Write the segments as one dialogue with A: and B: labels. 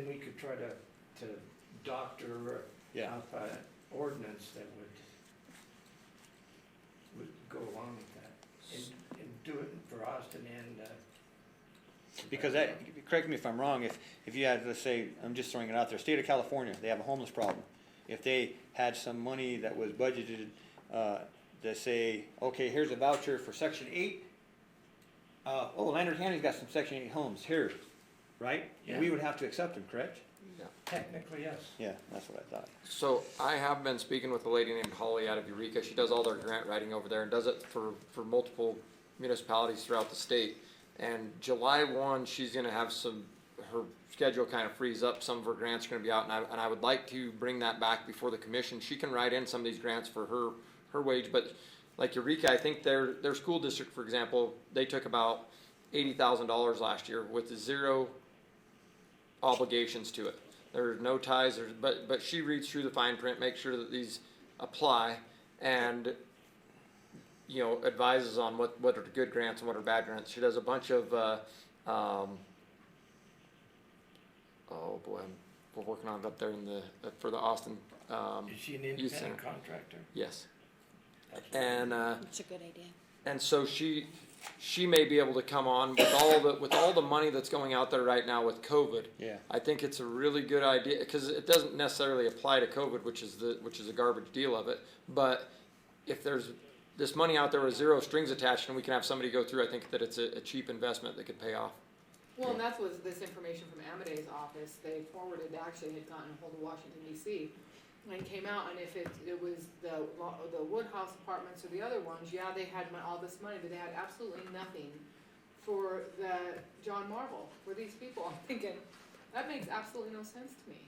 A: And we could try to, to doctor
B: Yeah,
A: out an ordinance that would, would go along with that. And, and do it for Austin and, uh.
B: because that, correct me if I'm wrong, if, if you had, let's say, I'm just throwing it out there, state of California, they have a homeless problem. If they had some money that was budgeted, uh, to say, okay, here's a voucher for section eight. Uh, oh, Lander County's got some section eight homes here, right? And we
A: Yeah.
B: would have to accept them, correct?
A: Technically, yes.
B: Yeah, that's what I thought.
C: So I have been speaking with a lady named Holly out of Eureka. She does all their grant writing over there and does it for, for multiple municipalities throughout the state. And July one, she's gonna have some, her schedule kind of frees up. Some of her grants are gonna be out and I, and I would like to bring that back before the commission. She can write in some of these grants for her, her wage, but like Eureka, I think their, their school district, for example, they took about eighty thousand dollars last year with zero obligations to it. There's no ties, there's, but, but she reads through the fine print, makes sure that these apply and, you know, advises on what, what are good grants and what are bad grants. She does a bunch of, uh, um, oh boy, I'm, we're working on it up there in the, for the Austin, um,
A: Is she an
C: Youth Center.
A: independent contractor?
C: yes. And, uh,
D: It's a good idea.
C: and so she she may be able to come on with all the with all the money that's going out there right now with COVID.
B: Yeah.
C: I think it's a really good idea because it doesn't necessarily apply to COVID, which is the which is a garbage deal of it. But if there's this money out there with zero strings attached, and we can have somebody go through, I think that it's a, a cheap investment that could pay off.
E: Well, and that's was this information from Amadee's office, they forwarded, actually had gotten a hold of Washington DC. And came out, and if it, it was the, lo- the Woodhouse apartments or the other ones, yeah, they had mon- all this money, but they had absolutely nothing for the John Marvel, for these people, I'm thinking, that makes absolutely no sense to me.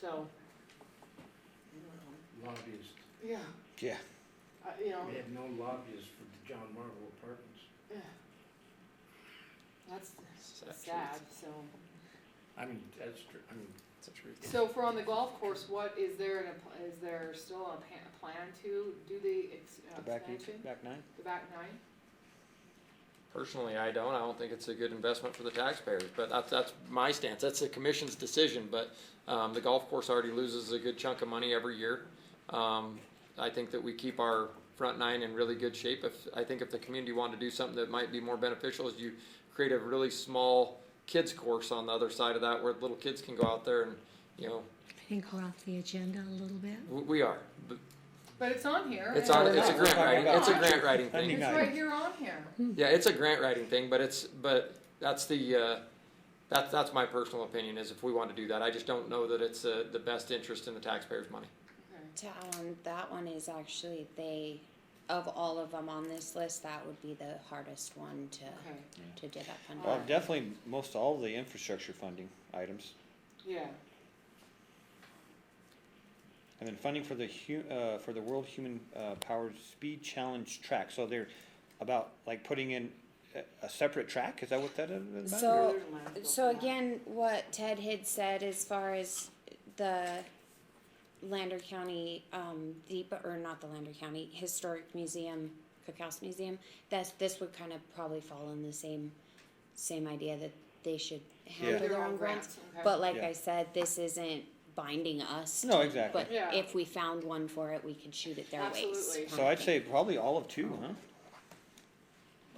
E: So, I don't know.
A: Lobbyists.
E: yeah,
B: Yeah.
E: I- you know.
A: We have no lobbyists for the John Marvel apartments.
E: Yeah. That's
C: Sad truth.
E: sad, so.
A: I mean, that's true, I mean,
C: It's a truth.
E: So for on the golf course, what, is there, an app- is there still a pa- a plan to do the ex- uh,
B: The back,
E: expansion?
B: back nine?
E: The back nine?
C: Personally, I don't. I don't think it's a good investment for the taxpayers, but that's, that's my stance. That's the commission's decision, but, um, the golf course already loses a good chunk of money every year. Um, I think that we keep our front nine in really good shape. If, I think if the community wanted to do something that might be more beneficial is you create a really small kids course on the other side of that where little kids can go out there and, you know,
D: I think we're off the agenda a little bit.
C: we, we are. But
E: But it's on here.
C: It's on, it's a grant writing, it's a grant writing
B: I
C: thing.
B: mean,
E: It's
B: Yeah.
E: right here on here.
C: Yeah, it's a grant writing thing, but it's, but that's the, uh, that's, that's my personal opinion is if we want to do that, I just don't know that it's, uh, the best interest in the taxpayers' money.
E: Okay.
D: That one, that one is actually, they, of all of them on this list, that would be the hardest one to,
E: Okay.
D: to dig up
B: Well,
D: under.
B: definitely most all the infrastructure funding items.
E: Yeah,
B: And then funding for the hu- uh, for the World Human uh, Powered Speed Challenge track. So they're about like putting in a, a separate track. Is that what that is about?
D: So-
E: There's a landfill
D: So
E: for that.
D: again, what Ted had said as far as the Lander County, um, the, or not the Lander County Historic Museum, Cookhouse Museum, that's, this would kind of probably fall in the same, same idea that they should handle
E: Their
D: their
E: own
D: own grants.
E: grants, okay.
D: But like
B: Yeah.
D: I said, this isn't binding us.
B: no,
D: to-
B: exactly.
D: But
E: Yeah.
D: if we found one for it, we could shoot it their ways.
E: Absolutely.
B: So I'd say probably all of two, huh?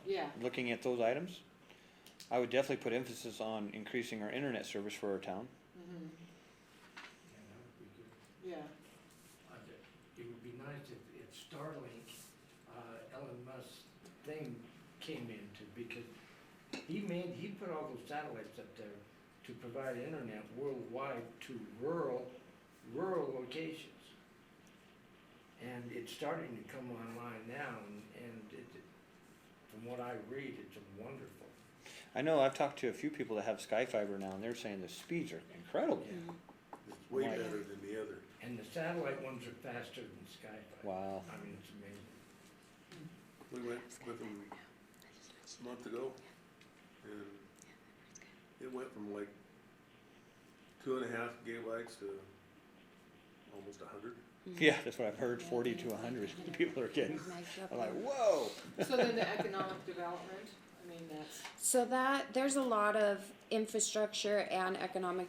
E: yeah,
B: Looking at those items, I would definitely put emphasis on increasing our internet service for our town.
A: yeah, that would be good.
E: yeah.
A: Uh, It would be nice if, if Starlink, uh, Elon Musk's thing came into, because he made, he put all those satellites up there to provide internet worldwide to rural, rural locations. And it's starting to come online now, and, and it, from what I read, it's wonderful.
B: I know I've talked to a few people that have Sky Fiber now, and they're saying the speeds are incredible.
F: It's way
B: Right.
F: better than the other.
A: And the satellite ones are faster than Skype.
B: Wow.
A: I mean, it's amazing.
F: We went with them a month ago, and it went from like two and a half gigabytes to almost a hundred.
B: Yeah, that's what I've heard. Forty to hundred people are getting.
D: Micro-
B: I'm like, whoa.
E: So then the economic development I mean, that's.
D: So that, there's a lot of infrastructure and economic